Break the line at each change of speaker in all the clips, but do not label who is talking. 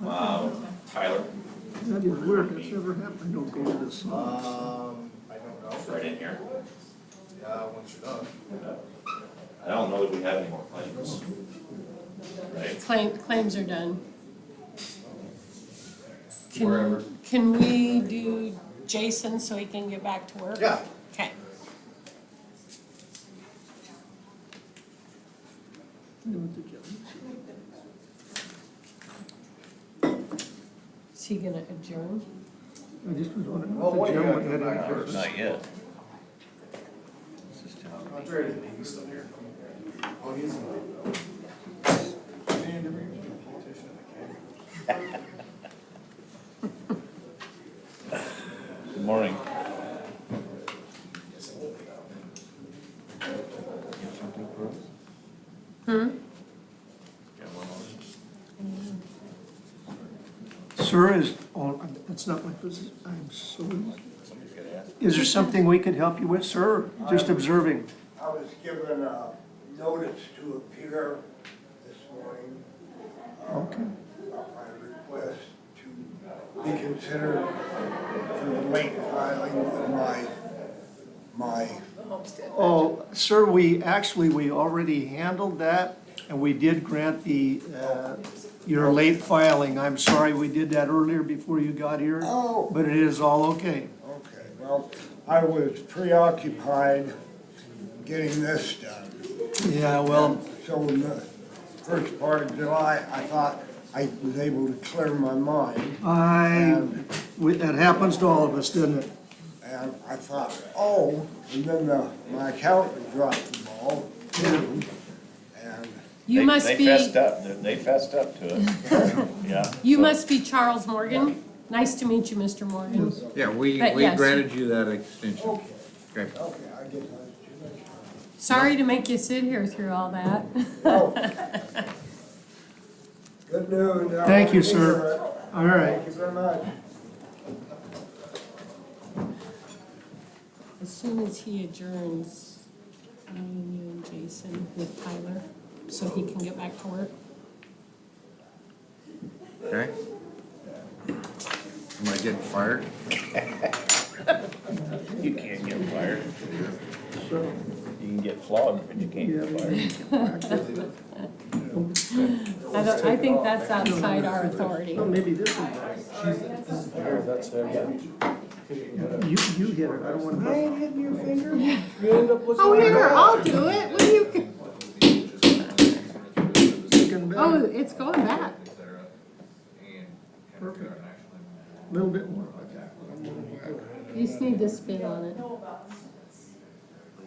Wow, Tyler,
That is weird, that's never happened, don't go to the song.
Um, I don't
it's
know,
right in here.
uh, once you're done.
I don't know that we have any more claims. Right?
Claim, claims are done. Can-
Wherever.
Can we do Jason so he can get back to work?
Yeah.
Okay.
You know what the judge said.
Is he gonna adjourn?
I just was wondering
Well, what
if
do
the
you
gentleman
have to
had any
back up?
questions.
Not yet. This is town.
I'm very late, he's still here. Oh, he is in Man, never even been a politician in the
Good morning.
Got one more.
Sir, is, oh, that's not my position, I'm so,
Somebody's gotta ask.
is there something we could help you with, sir? Just observing.
I was given a notice to appear this morning,
Okay.
on my request to be considered for the late filing of my, my,
Oh, sir, we, actually, we already handled that, and we did grant the, uh, your late filing. I'm sorry, we did that earlier before you got here.
Oh.
But it is all okay.
okay, well, I was preoccupied getting this done.
Yeah, well,
So in the first part of July, I thought I was able to clear my mind.
I, we- that happens to all of us, doesn't it?
And I thought, oh, and then the, my accountant dropped the ball, too. And
You
They-
must
They fessed
be,
up, They- they fessed up to it. Yeah.
you
so-
must be Charles Morgan. Nice to meet you, Mr. Morgan.
Yeah, we,
But
we
yes.
granted you that extension. Okay.
Okay, I guess that's
Sorry to make you sit here through all that.
too much time. Oh. Good news. I
Thank you,
was
sir. All
here.
right.
Thank you very much.
As soon as he adjourns, me and you and Jason with Tyler, so he can get back to work.
Okay? Am I getting fired?
You can't get fired.
So,
You can get flogged, but you can't get fired.
I don't, I think that's outside our authority.
well, maybe this one. You, you hit it, I don't want to.
Oh, here, I'll do it. What do you? Oh, it's going back.
Perfect. Little bit more.
You just need to spit on it.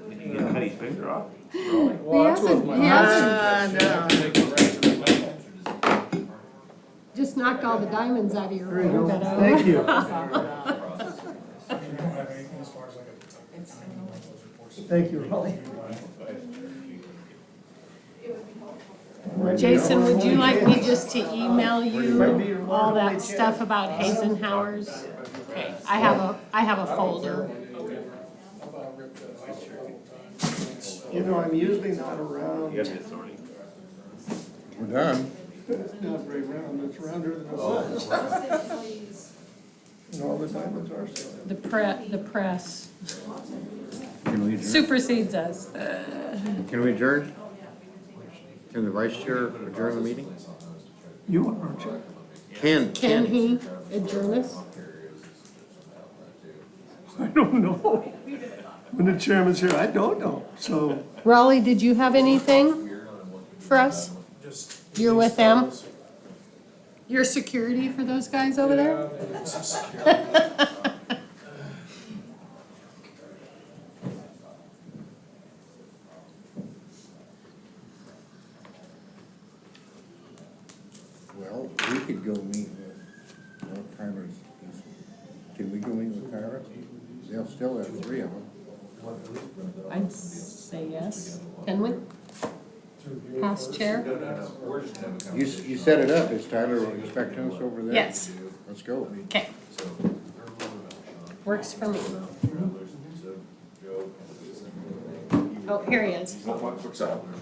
Did you get Cuddy's finger off?
He hasn't, he hasn't, just knocked all the diamonds out of your
There you
room.
go.
but, uh,
Thank you.
You don't have anything as far as like a timing on those reports?
Thank you, Raleigh.
Jason, would you like me just to email you all that stuff about Eisenhower's? Okay, I have a, I have a folder.
How about I rip the vice chair one time?
You know, I'm usually not around.
You have the authority.
We're done.
It's not very round, it's rounder than it was. And all the diamonds are so.
The pre, the press
Can we adjourn?
supersedes us.
Can we adjourn? Can the vice chair adjourn the meeting?
You are, aren't you?
Can,
Can he adjourn us?
I don't know. When the chairman's here, I don't know, so.
Raleigh, did you have anything for us?
Just.
You're with them? You're security for those guys over there?
Yeah, they- some security.
Well, we could go meet with, no, Tyler's, can we go meet with Tyler? They'll still have three of them.
I'd say yes. Can we? Past chair?
You, s- you set it up, is Tyler expecting us over there?
Yes.
Let's go.
Okay. Works for me. Oh, here he is. Oh,
What, what's up?